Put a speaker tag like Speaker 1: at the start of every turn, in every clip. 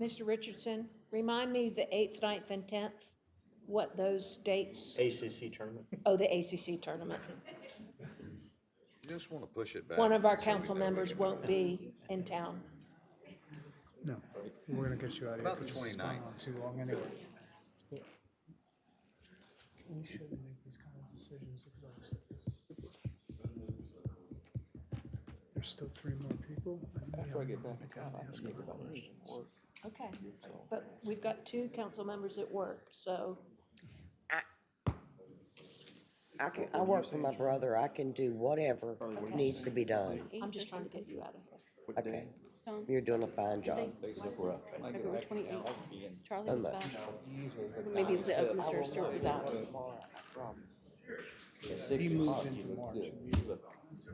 Speaker 1: Mr. Richardson, remind me the 8th, 9th, and 10th, what those dates,
Speaker 2: ACC tournament.
Speaker 1: oh, the ACC tournament.
Speaker 3: You just want to push it back.
Speaker 1: One of our
Speaker 3: so we
Speaker 1: council
Speaker 3: know when
Speaker 1: members
Speaker 3: it-
Speaker 1: won't be in town.
Speaker 4: No, we're gonna get you out of here.
Speaker 3: About the
Speaker 4: 'cause it's gone
Speaker 3: 29th.
Speaker 4: on Too long anyway. We shouldn't make these kind of decisions. There's still three more people. After I get back in town, I ask them questions.
Speaker 1: Okay, but we've got two council members at work, so,
Speaker 5: I can, I work for my brother, I can do whatever needs to be done,
Speaker 1: I'm just trying to get you out of here.
Speaker 5: okay? You're doing a fine job.
Speaker 6: February twenty-eighth, Charlie
Speaker 5: Oh,
Speaker 6: was
Speaker 5: no.
Speaker 6: back. Maybe it was, uh, Mr. Stewart was out.
Speaker 4: He moves into March.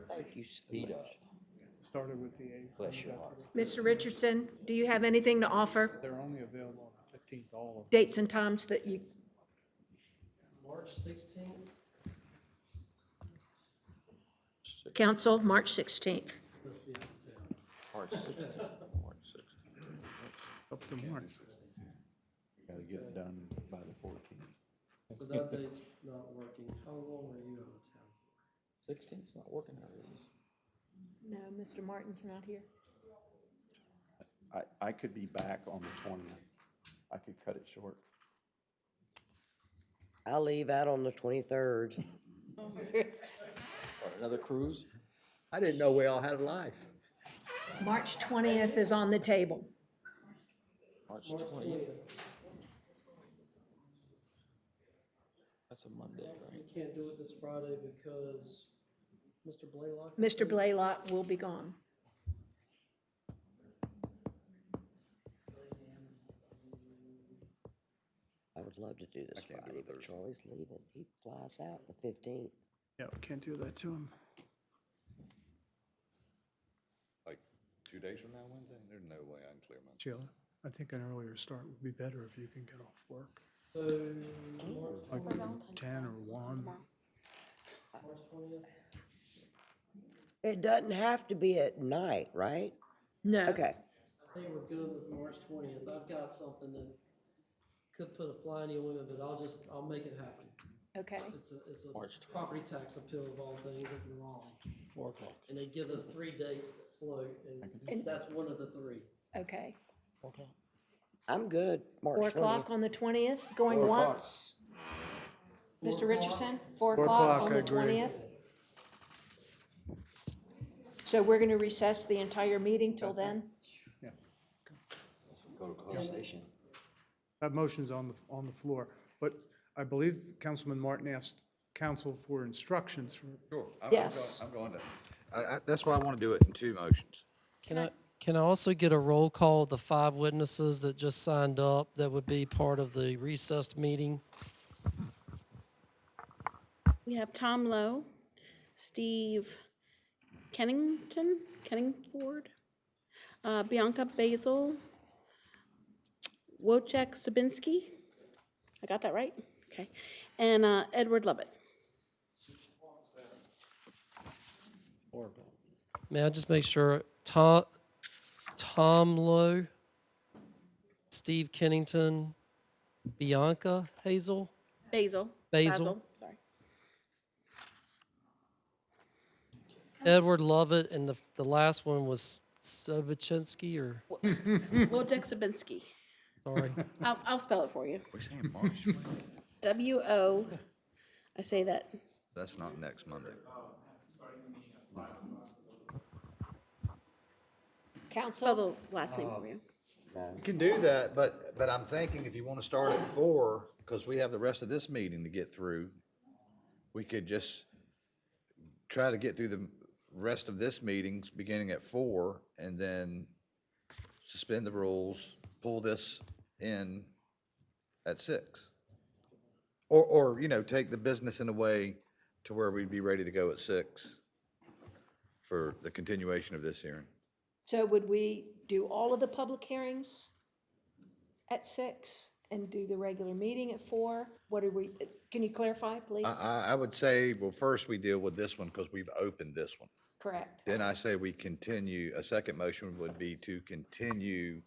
Speaker 5: Thank you so much.
Speaker 4: Started with the eighth. and got to the-
Speaker 1: Mr. Richardson, do you have anything to offer?
Speaker 4: They're only available on the fifteenth, all of them.
Speaker 1: Dates and times that you,
Speaker 7: March sixteenth,
Speaker 1: council, March 16th.
Speaker 7: let's be out of town.
Speaker 3: March 16th, March 16th.
Speaker 4: Up to March.
Speaker 8: Gotta get it done by the fourteenth.
Speaker 7: So that date's not working. How long are you out of town?
Speaker 8: Sixteenth's not working out of these.
Speaker 1: No, Mr. Martin's not here.
Speaker 8: I, I could be back on the twentieth. I could cut it short.
Speaker 5: I leave out on the twenty-third.
Speaker 8: Another cruise?
Speaker 2: I didn't know we all had a life.
Speaker 1: March 20th is on the table.
Speaker 8: March
Speaker 7: March
Speaker 8: twentieth,
Speaker 7: twentieth,
Speaker 8: that's a Monday,
Speaker 7: we
Speaker 8: right?
Speaker 7: can't do it this Friday because Mr. Blaylock. is
Speaker 1: Mr. Blaylock will be gone.
Speaker 5: I would love to do this
Speaker 3: can't do
Speaker 5: Friday,
Speaker 3: it
Speaker 5: but
Speaker 3: Thursday.
Speaker 5: Charlie's leaving, he flies out the fifteenth.
Speaker 4: Yeah, we can't do that to him.
Speaker 3: Like, two days from now, Wednesday? There's no way I can clear my.
Speaker 4: Sheila, I think an earlier start would be better if you can get off work.
Speaker 7: So, March
Speaker 4: Like ten or one.
Speaker 7: twentieth,
Speaker 5: It doesn't have to be at night, right?
Speaker 1: No.
Speaker 5: Okay,
Speaker 7: I think we're good with March twentieth. I've got something that could put a fly in your window, but I'll just, I'll make it happen.
Speaker 1: Okay.
Speaker 7: It's a, it's
Speaker 8: March
Speaker 7: a property tax appeal of all things up in Raleigh.
Speaker 8: Four o'clock.
Speaker 7: And they give us three dates that float, and
Speaker 1: And-
Speaker 7: that's one of the three.
Speaker 1: Okay.
Speaker 5: I'm good,
Speaker 1: Four
Speaker 5: March
Speaker 1: o'clock
Speaker 5: twentieth.
Speaker 1: on the twentieth, going once. Mr.
Speaker 7: Four o'clock.
Speaker 1: Richardson, four
Speaker 4: Four
Speaker 1: o'clock
Speaker 4: o'clock,
Speaker 1: on
Speaker 4: I
Speaker 1: the
Speaker 4: agree.
Speaker 1: twentieth. So we're gonna recess the entire meeting till then?
Speaker 2: Go to closed session.
Speaker 4: That motion's on the, on the floor, but I believe Councilman Martin asked council for instructions for
Speaker 3: Sure. I'm- I'm
Speaker 1: Yes.
Speaker 3: going- I'm going to, I, I, that's why I want to do it in two motions.
Speaker 7: Can I,
Speaker 9: Can I also get a roll call of the five witnesses that just signed up that would be part of the recessed meeting?
Speaker 6: We have Tom Lowe, Steve Kennington, Kenningford, uh, Bianca Basil, Wojciech Sabinski. I got that right? Okay. And, uh, Edward Lovett.
Speaker 9: May I just make sure, Tom, Tom Lowe, Steve Kennington, Bianca Hazel?
Speaker 6: Basil.
Speaker 9: Basil.
Speaker 6: Sorry.
Speaker 9: Edward Lovett, and the, the last one was Sobachinsky, or,
Speaker 6: Wojciech Sabinski.
Speaker 9: sorry.
Speaker 6: I'll, I'll spell it for you.
Speaker 3: We're saying March.
Speaker 6: W O, I say that,
Speaker 3: That's not next Monday.
Speaker 6: spell
Speaker 1: Council,
Speaker 6: the last name for you.
Speaker 3: You can do that, but, but I'm thinking if you want to start at four, because we have the rest of this meeting to get through, we could just try to get through the rest of this meetings beginning at four and then suspend the rules, pull this in at six. Or, or, you know, take the business in a way to where we'd be ready to go at six for the continuation of this hearing.
Speaker 1: so would we do all of the public hearings at six and do the regular meeting at four? What are we, can you clarify, please?
Speaker 3: I, I, I would say, well, first we deal with this one because we've opened this one.
Speaker 1: Correct.
Speaker 3: Then I say we continue, a second motion would be to continue